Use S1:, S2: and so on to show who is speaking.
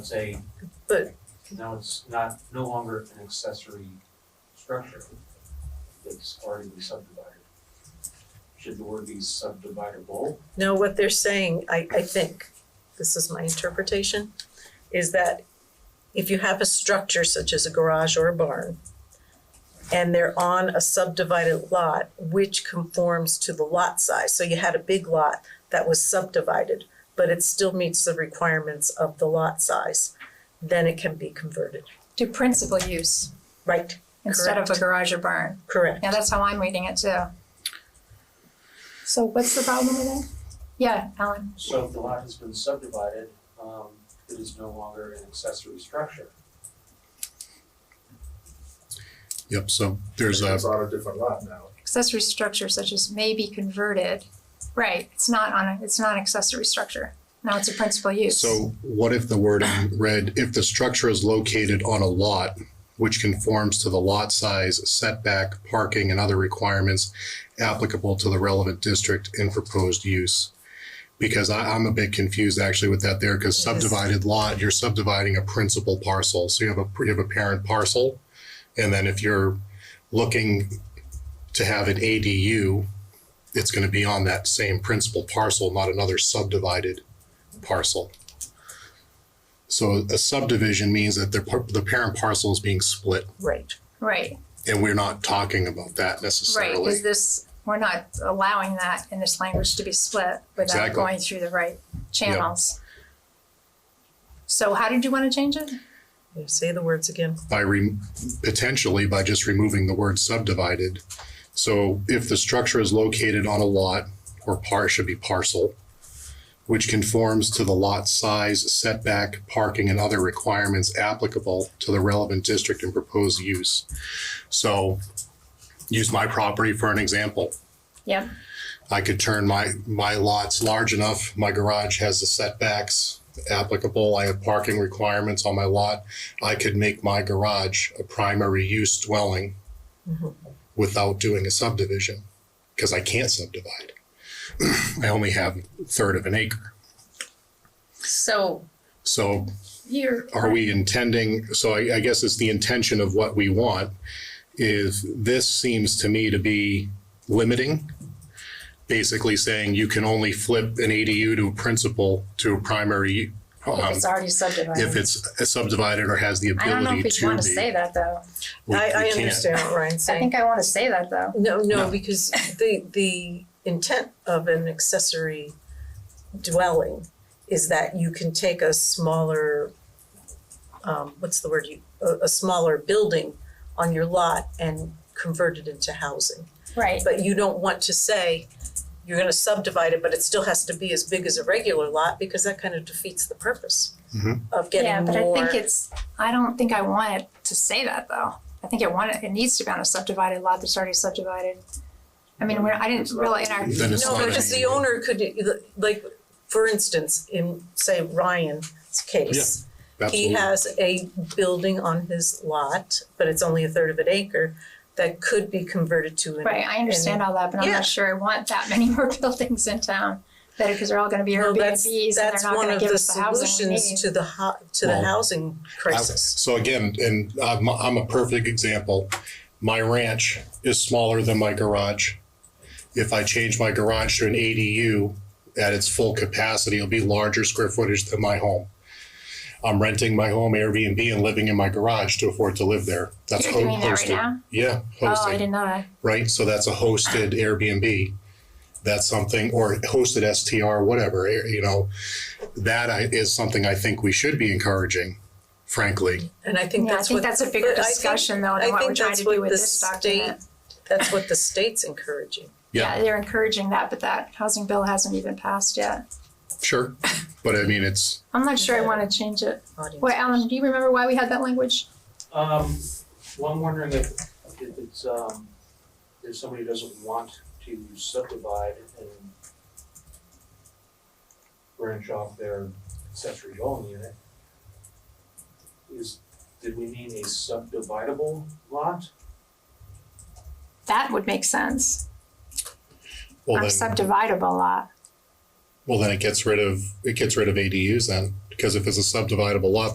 S1: say.
S2: But-
S1: Now it's not, no longer an accessory structure that's already been subdivided. Should the word be subdividable?
S2: No, what they're saying, I, I think, this is my interpretation, is that if you have a structure such as a garage or a barn, and they're on a subdivided lot which conforms to the lot size, so you had a big lot that was subdivided, but it still meets the requirements of the lot size, then it can be converted.
S3: to principal use
S2: Right,
S3: instead of a garage or barn.
S2: correct.
S3: Yeah, that's how I'm reading it too.
S4: So what's the problem with that?
S3: Yeah, Alan.
S1: So if the lot has been subdivided, um, it is no longer an accessory structure.
S5: Yep, so there's a,
S6: It's on a different lot now.
S3: Accessory structure such as may be converted. Right, it's not on a, it's not an accessory structure. Now it's a principal use.
S5: so what if the wording read, if the structure is located on a lot which conforms to the lot size, setback, parking, and other requirements applicable to the relevant district and proposed use? Because I, I'm a bit confused actually with that there, because
S2: Yes.
S5: subdivided lot, you're subdividing a principal parcel, so you have a, you have a parent parcel. And then if you're looking to have an ADU, it's gonna be on that same principal parcel, not another subdivided parcel. So a subdivision means that the, par- the parent parcel is being split,
S2: Right,
S3: Right,
S5: and we're not talking about that
S3: right,
S5: necessarily.
S3: is this, we're not allowing that in this language to be split without
S5: Exactly.
S3: going through the right channels. So how did you wanna change it?
S2: You say the words again.
S5: By re, potentially by just removing the word subdivided. So if the structure is located on a lot, or par, should be parcel, which conforms to the lot size, setback, parking, and other requirements applicable to the relevant district and proposed use. So, use my property for an example.
S3: Yep,
S5: I could turn my, my lots large enough, my garage has the setbacks applicable, I have parking requirements on my lot. I could make my garage a primary use dwelling
S3: Mm-hmm.
S2: Mhm.
S5: without doing a subdivision, because I can't subdivide. I only have a third of an acre.
S3: so
S5: So
S3: you're.
S5: are we intending, so I, I guess it's the intention of what we want, is this seems to me to be limiting. Basically saying you can only flip an ADU to a principal to a primary, um,
S3: already subdivided.
S5: if it's subdivided or has the
S3: I don't know
S5: ability
S3: if
S5: to
S3: we
S5: be.
S3: wanna say that though.
S5: We-
S2: I, I
S5: we can't.
S2: understand what Ryan's saying.
S3: I think I wanna say that though.
S2: No, no,
S5: No.
S2: because the, the intent of an accessory dwelling is that you can take a smaller, um, what's the word, you, a, a smaller building on your lot and convert it into housing.
S3: Right,
S2: But you don't want to say, you're gonna subdivide it, but it still has to be as big as a regular lot, because that kind of defeats the purpose
S5: Mhm.
S2: of getting
S3: yeah,
S2: more.
S3: but I think it's, I don't think I want it to say that though. I think it want, it needs to be on a subdivided lot that's already subdivided. I mean, we're, I didn't really, in our,
S5: Then it's
S2: No,
S5: not
S2: because
S5: an
S2: the
S5: ADU.
S2: owner could, like, for instance, in, say, Ryan's case, he
S5: Absolutely.
S2: has a building on his lot, but it's only a third of an acre, that could be converted to an.
S3: right, I understand all that, but I'm
S2: Yeah.
S3: not sure I want that many more buildings in town. That, because they're all gonna be
S2: Well, that's,
S3: Airbnbs and they're
S2: that's
S3: not
S2: one
S3: gonna
S2: of
S3: give
S2: the
S3: us the housing we need.
S2: solutions to the ho- to the
S5: Well,
S2: housing crisis.
S5: So again, and I'm, I'm a perfect example. My ranch is smaller than my garage. If I change my garage to an ADU at its full capacity, it'll be larger square footage than my home. I'm renting my home Airbnb and living in my garage to afford to live there. That's
S3: You're
S5: ho-
S3: doing that right
S5: hosted.
S3: now?
S5: Yeah,
S3: Oh, I
S5: hosted,
S3: didn't know that.
S5: right? So that's a hosted Airbnb. That's something, or hosted STR, whatever, eh, you know. That I- is something I think we should be encouraging, frankly.
S2: And I think
S3: Yeah, I
S2: that's what.
S3: think that's a bigger
S2: but I think-
S3: discussion though than
S2: I
S3: what we're
S2: think
S3: trying
S2: that's
S3: to
S2: what
S3: do with
S2: the
S3: this document.
S2: That's what the state's encouraging.
S5: Yeah.
S3: Yeah, they're encouraging that, but that housing bill hasn't even passed yet.
S5: Sure, but I mean, it's,
S3: I'm not sure I wanna change it.
S2: audience.
S3: Wait, Alan, do you remember why we had that language?
S1: Um, well, I'm wondering if, if it's, um, if somebody doesn't want to subdivide and branch off their accessory dwelling unit, is, did we mean a subdividable lot?
S3: That would make sense. Or
S5: well then,
S3: subdividable lot.
S5: well then it gets rid of, it gets rid of ADUs then, because if it's a subdividable lot,